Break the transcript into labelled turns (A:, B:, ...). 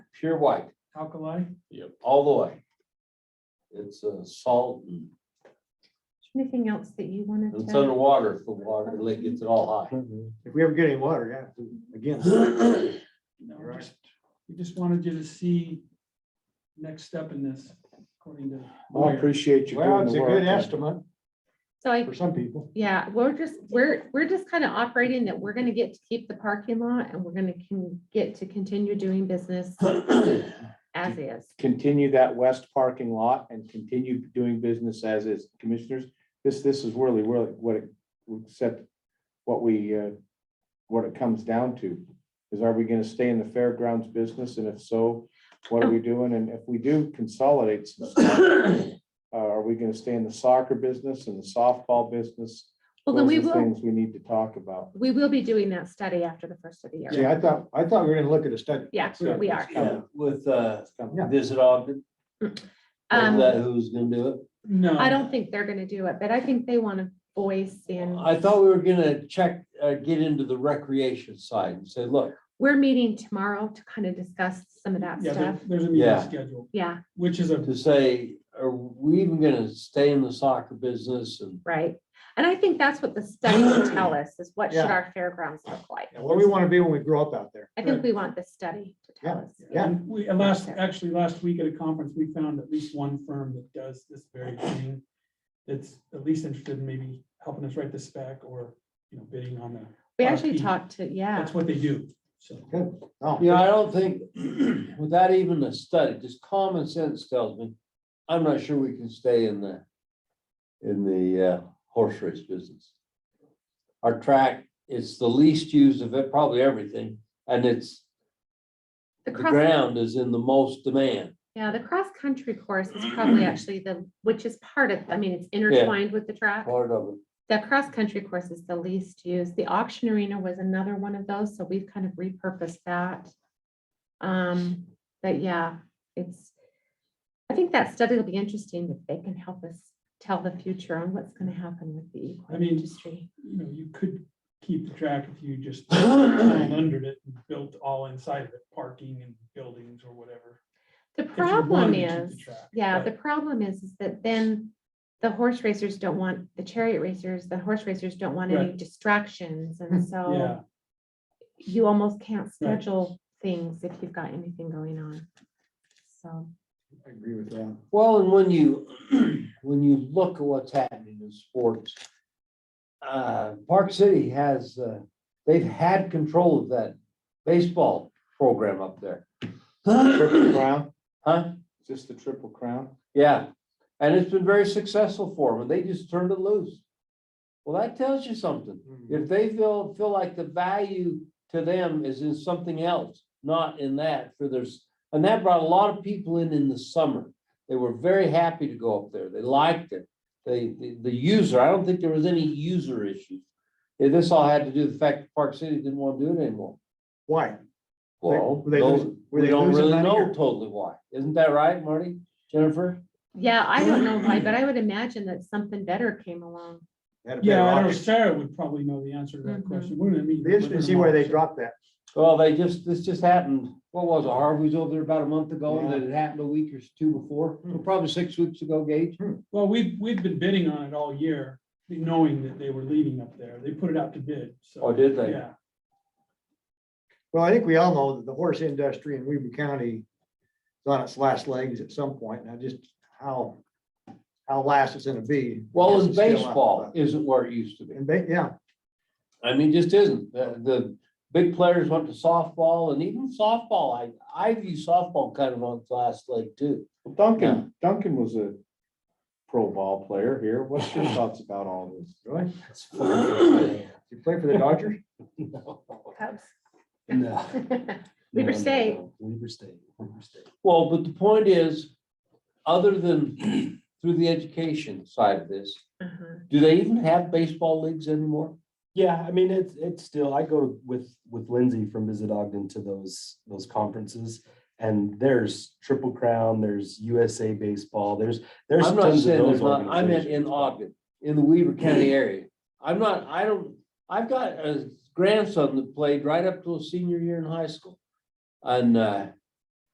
A: pure white,
B: alkali.
A: all the way. It's a salt and
C: Anything else that you wanted
A: it's
C: to?
A: underwater if the water like gets it all high.
D: Mm-hmm.
E: If we ever get any water, yeah, again,
A: Well,
B: No,
E: Right.
B: just, we just wanted you to see next step in this, according to.
D: I
B: lawyer.
D: appreciate you
E: well,
D: doing
E: it's
D: the
E: a good
D: work.
E: estimate
C: So I,
E: for some people.
C: yeah, we're just, we're, we're just kind of operating that we're gonna get to keep the parking lot and we're gonna can get to continue doing business as is.
D: Continue that west parking lot and continue doing business as is commissioners. This, this is really, really what it, except what we, uh, what it comes down to. Is are we gonna stay in the fairgrounds business? And if so, what are we doing? And if we do consolidate some stuff, uh, are we gonna stay in the soccer business and the softball business?
C: Well, then we
D: Those are
C: will,
D: Things we need to talk about.
C: we will be doing that study after the first of the year.
E: See, I thought, I thought we were gonna look at a study.
C: Yeah, we are.
A: yeah, With uh,
D: It's coming.
E: Yeah.
A: visit Ogden, is
C: Um,
A: that who's gonna do it?
B: No.
C: I don't think they're gonna do it, but I think they want a voice and
A: I thought we were gonna check, uh, get into the recreation side and say, look,
C: we're meeting tomorrow to kind of discuss some of that
B: Yeah, there-
C: stuff.
B: there's a meeting
A: Yeah.
B: scheduled,
C: Yeah,
B: which is a,
A: to say, are we even gonna stay in the soccer business and
C: right. And I think that's what the study will tell us is what should
E: Yeah.
C: our fairgrounds look like?
E: And What we wanna be when we grow up out there.
C: I think we want the study to tell us.
E: Yeah.
B: and we, and last, actually, last week at a conference, we found at least one firm that does this very thing. That's at least interested in maybe helping us write the spec or, you know, bidding on the,
C: We
B: Our
C: actually
B: people.
C: talked to, yeah,
B: that's what they do, so.
E: Oh,
A: Yeah, I don't think, without even a study, just common sense tells me, I'm not sure we can stay in the, in the uh, horse race business. Our track is the least used of it, probably everything, and it's,
C: the
A: the
C: cross,
A: ground is in the most demand.
C: yeah, the cross-country course is probably actually the, which is part of, I mean, it's intertwined with the track.
A: Part of it,
C: The cross-country course is the least used. The auction arena was another one of those, so we've kind of repurposed that. Um, but yeah, it's, I think that study will be interesting if they can help us tell the future on what's gonna happen with the
B: I
C: equine
B: mean,
C: industry.
B: you know, you could keep the track if you just tunneled under it and built all inside of it, parking and buildings or whatever.
C: The
B: you're wanting
C: problem
B: to keep the
C: is,
B: track,
C: yeah,
B: right.
C: the problem is, is that then the horse racers don't want, the chariot racers, the horse racers don't want any distractions,
B: Yeah,
C: and so you almost can't
B: Right.
C: schedule things if you've got anything going on. So,
E: I agree with that.
A: well, and when you, when you look at what's happening in sports, uh, Park City has, uh, they've had control of that baseball program up there.
D: Triple crown,
A: Huh?
D: is this the triple crown?
A: Yeah, and it's been very successful for them, and they just turned it loose. Well, that tells you something. If they feel, feel like the value to them is in something else, not in that for there's, and that brought a lot of people in in the summer. They were very happy to go up there. They liked it. They, the, the user, I don't think there was any user issues. Yeah, This all had to do with the fact that Park City didn't want to do it anymore.
E: Why?
A: Well,
E: were they
A: those-
E: losing- were
A: we
E: they
A: don't
E: losing
A: really
E: money
A: know
E: or-
A: totally why. Isn't that right, Marty? Jennifer?
C: yeah, I don't know why, but I would imagine that something better came along.
E: Had a better
B: yeah, I know
E: option.
B: Sarah would probably know the answer to that
C: Mhm.
B: question, wouldn't it? I mean,
E: Be interesting to see where they dropped that.
A: Well, they just, this just happened, what was it, Harvey was over there about a month ago, and then it happened a week or two before, or probably six weeks ago, Gage.
B: Well, we've, we've been bidding on it all year, knowing that they were leaving up there. They put it out to bid, so.
A: Oh, did they?
B: Yeah.
E: Well, I think we all know that the horse industry in Weaver County is on its last legs at some point. Now just how, how last it's gonna be.
A: Well,
E: is
A: as
E: still out,
A: baseball
E: but-
A: isn't where it used to be.
E: And they, yeah,
A: I mean, just isn't. The, the big players went to softball and even softball, I, I view softball kind of on its last leg too.
D: Well, Duncan, Duncan was a pro ball player here. What's your thoughts about all this?
E: really.
A: No.
E: You play for the Dodgers?
A: No.
C: Weaver State.
A: Weaver State, Weaver State. Well, but the point is, other than through the education side of this,
C: Uh-huh.
A: do they even have baseball leagues anymore?
F: Yeah, I mean, it's, it's still, I go with, with Lindsay from Visit Ogden to those, those conferences. And there's Triple Crown, there's USA Baseball, there's, there's
A: I'm not
F: tons of
A: saying
F: those
A: there's not, I meant in
F: organizations. Hmm.
A: Ogden, in the Weaver County area. I'm not, I don't, I've got a grandson that played right up to his senior year in high school. And uh,